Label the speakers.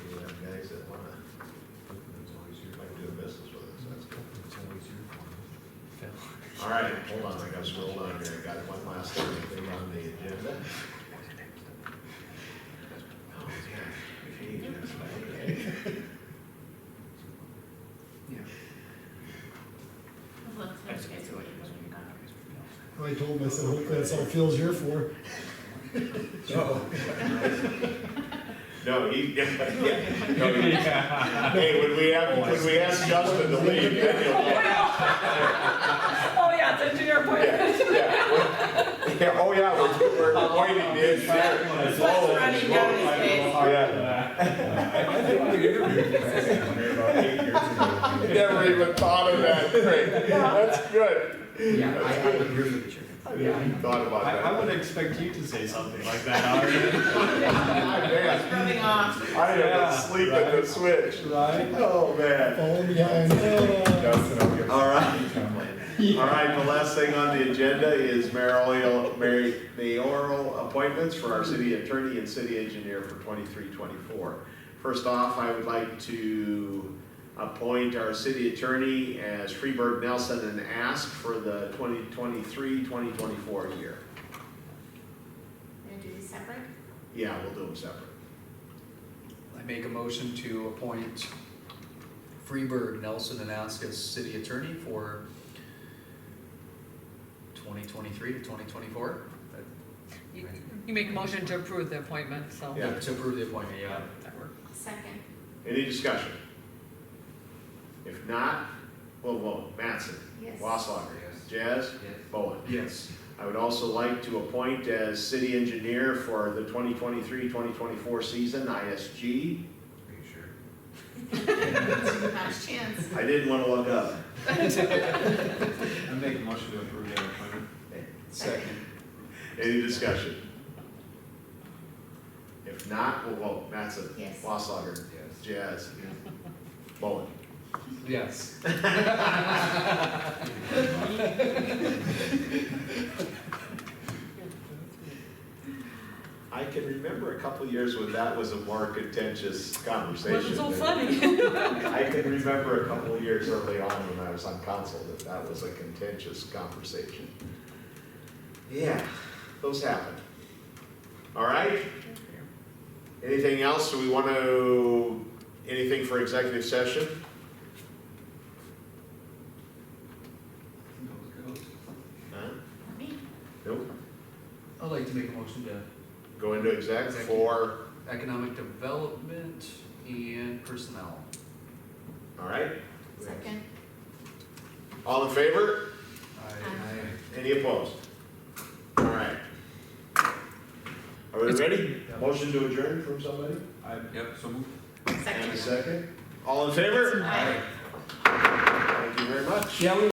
Speaker 1: All right, hold on, I gotta scroll down here, I got one last thing on the agenda. Oh, yeah, page, that's right, okay.
Speaker 2: I told him, I said, hopefully that's all Phil's here for.
Speaker 1: No, he, yeah, yeah, no, he- hey, when we have, when we ask Justin to leave, yeah, he'll-
Speaker 3: Oh, yeah, it's engineer appointment.
Speaker 1: yeah, we're- yeah, oh, yeah, we're, we're appointing the engineer.
Speaker 3: It's what's running down his face.
Speaker 1: Never even thought of that, great, that's good.
Speaker 4: Yeah, I, I am here for the chicken.
Speaker 1: I never even thought about
Speaker 5: I, I
Speaker 1: that.
Speaker 5: would expect you to say something like that, Ari.
Speaker 1: Ah, man,
Speaker 3: Rubbing off.
Speaker 1: I
Speaker 5: Yeah,
Speaker 1: haven't sleep at the switch.
Speaker 5: Right?
Speaker 1: Oh, man.
Speaker 2: Falling behind. Oh.
Speaker 1: Justin, I'll give- All right. All right, the last thing on the agenda is mayoral, mayor- mayoral appointments for our city attorney and city engineer for twenty-three, twenty-four. First off, I would like to appoint our city attorney as Freeburg Nelson and ask for the 2023-2024 year.
Speaker 3: And do these separate?
Speaker 1: Yeah, we'll do them separate.
Speaker 4: I make a motion to appoint Freeburg Nelson and Ask as city attorney for twenty twenty-three to twenty twenty-four.
Speaker 6: You you make a motion to approve the appointment, so.
Speaker 1: Yeah.
Speaker 4: To approve the appointment, yeah.
Speaker 6: That worked.
Speaker 3: Second.
Speaker 1: Any discussion? If not, we'll vote. Mattson?
Speaker 3: Yes.
Speaker 1: Wasslager? Jazz? Bowen?
Speaker 4: Yes.
Speaker 1: I would also like to appoint as city engineer for the 2023-2024 season, ISG.
Speaker 4: Are you sure?
Speaker 3: Not a chance.
Speaker 1: I didn't want to look up.
Speaker 5: I make a motion to approve that appointment.
Speaker 4: Second.
Speaker 1: Any discussion? If not, we'll vote. Mattson?
Speaker 3: Yes.
Speaker 1: Wasslager?
Speaker 4: Yes.
Speaker 1: Jazz? Bowen?
Speaker 4: Yes.
Speaker 1: I can remember a couple years when that was a more contentious conversation.
Speaker 6: Wasn't so
Speaker 1: than-
Speaker 6: funny.
Speaker 1: I can remember a couple of years early on when I was on council that that was a contentious conversation. Yeah, those happen. All right? Anything else? Do we want to, anything for executive session? Huh?
Speaker 3: Not me.
Speaker 1: Nope.
Speaker 4: I'd like to make a motion to
Speaker 1: Go into exec for,
Speaker 4: economic development and personnel.
Speaker 1: all right?
Speaker 3: Second.
Speaker 1: All in favor?
Speaker 3: Aye.
Speaker 1: Any opposed? All right. Are we ready? Motion to adjourn from somebody?
Speaker 4: Yep, so move.
Speaker 1: And a
Speaker 3: Second.
Speaker 1: second? All in favor?
Speaker 3: Aye.
Speaker 1: Thank you very much.
Speaker 2: Yeah, we